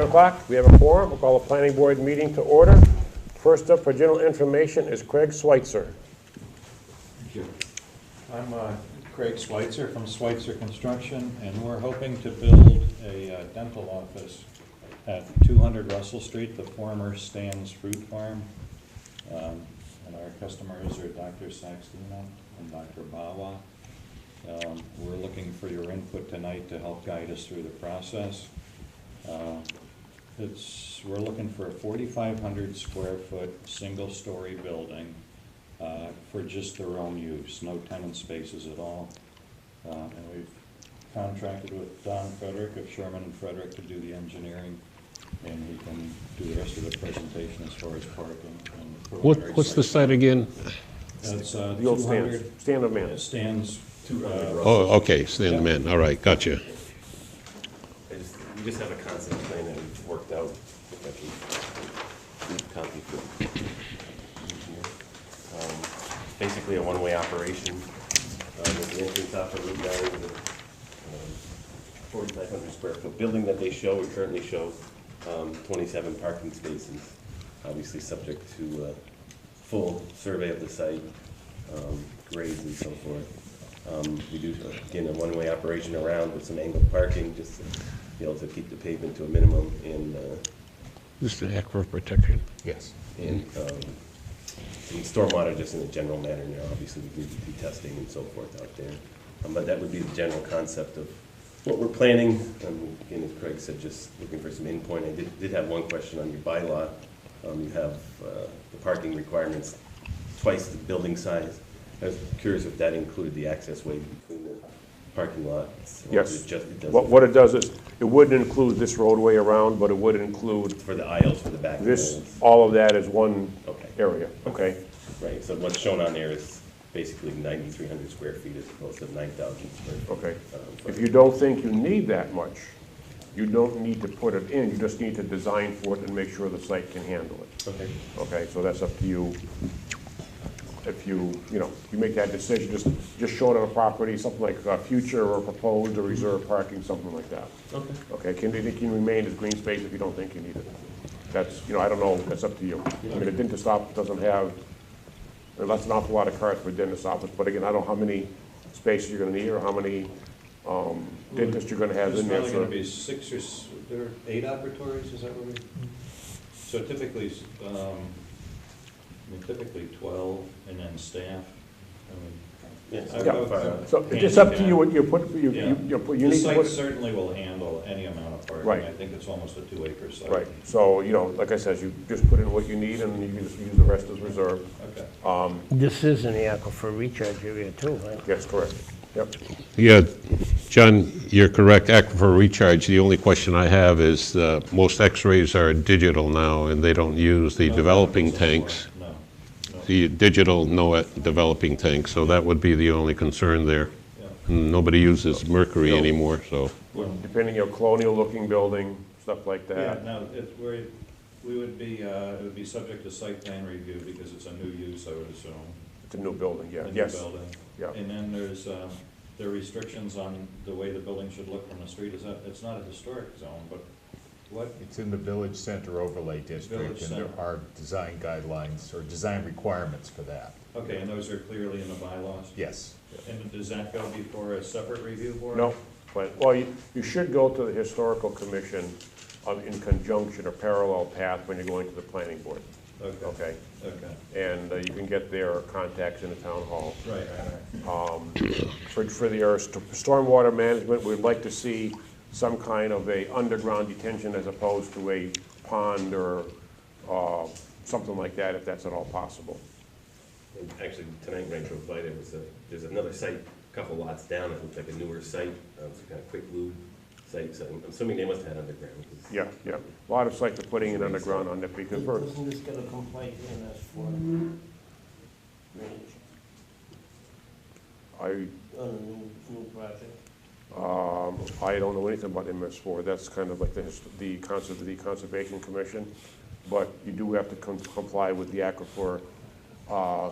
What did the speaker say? o'clock. We have a quorum. We'll call a planning board meeting to order. First up for general information is Craig Switzer. I'm uh, Craig Switzer from Switzer Construction, and we're hoping to build a uh, dental office at 200 Russell Street, the former Stan's Fruit Farm. Um, And our customers are Dr. Saxena and Dr. Bawa. Um, We're looking for your input tonight to help guide us through the process. Uh, It's, we're looking for a 4,500 square foot, single-story building uh, for just their own use, no tenant spaces at all. Uh, And we've contracted with Don Frederick of Sherman and Frederick to do the engineering, and we can do the rest of the presentation as far as parking and. What, preliminary what's the site. site again? That's uh, The old stand, 200 stand of uh, man. stands. uh, Oh, okay, stand the man, all right, gotcha. I just, we just have a concept plan that we've worked out, if I can, leave a copy for engineer. Um, Basically a one-way operation, uh, with the entrance off of Route nine, the um, forty-five hundred square foot building that they show, we currently show, um, twenty-seven parking spaces, obviously subject to, uh, full survey of the site, um, grades and so forth. Um, we do, again, a one-way operation around with some angled parking, just to be able to keep the pavement to a minimum and, uh, This is an act for protection. Yes. And um, and stormwater, just in a general manner, now, obviously, we need to do testing and so forth out there. Um, But that would be the general concept of what we're planning. Um, Again, as Craig said, just looking for some endpoint. I did, did have one question on your bylaw. Um, You have uh, the parking requirements twice the building size. I was curious if that included the access way between the parking lots? or Yes. it just- it doesn't- What, what it does is, it wouldn't include this roadway around, but it would include For the aisles, for the back? this, doors? all of that is one Okay. area, okay? Right, so what's shown on there is basically 9,300 square feet as opposed to 9,000 square feet. Okay. If you don't think you need that much, you don't need to put it in, you just need to design for it and make sure the site can handle it. Okay, Okay, so that's up to you. If you, you know, you make that decision, just, just show it on a property, something like uh, future or proposed or reserved parking, something like that. okay. Okay, can, it can remain as green space if you don't think you need it. That's, you know, I don't know, that's up to you. I mean, a dentist office doesn't have, well, that's an awful lot of cars for a dentist office, but again, I don't know how many spaces you're gonna need or how many, um, dentists you're gonna have There's in there. probably gonna so- be six or, s- there are eight operatories, is that what we? So typically, s- um, I mean, typically twelve and then staff. I mean, Yes. I- I Yeah. would- So it's just up to you handicap. what you put, you, Yeah. you, you put- you The need to site put. certainly will handle any amount of parking. Right. I think it's almost a two acre site. Right, so, you know, like I said, you just put in what you need and you just use the rest as reserve. Okay. This is in the aquifer recharge area too, right? Yes, correct. Yep, Yeah, John, you're correct, aquifer recharge, the only question I have is, uh, most x-rays are digital now, and they don't use the No, developing it's a floor. tanks. No, no. The digital, no uh, developing tanks, so that would be the only concern there. Yeah. Nobody uses mercury anymore, so. Well, depending on colonial-looking building, stuff like Yeah, that. no, it, we, we would be, uh, it would be subject to site plan review because it's a new use, I would assume. It's a new building, yeah, the new yes. building. yeah. And then there's, um, there are restrictions on the way the building should look from the street, is that, it's not a historic zone, but what, It's in the village center overlay district, Village and there center. are design guidelines or design requirements for that. okay, and those are clearly in the bylaws? Yes. And does that go before a separate review board? No, but, well, you, you should go to the historical commission um, in conjunction or parallel path when you're going to the planning board, Okay, okay, okay? right, And uh, you can get their contacts in the town hall. right, right. For, for the, our st- stormwater management, we'd like to see some kind of a underground detention as opposed to a pond or, uh, something like that, if that's at all possible. And Actually, tonight, Rancho Vita was a, there's another site, a couple lots down, it looks like a newer site, uh, it's kind of quick lube site, so I'm assuming they must have had underground. 'cause- Yeah, yeah. A lot of sites are putting it underground on it because we're, Isn't this gonna complain in us for range I, on a new, new project? um, I don't know anything about MS four. That's kind of like the, his- the concept of the Conservation Commission. But you do have to com- comply with the aquifer, uh,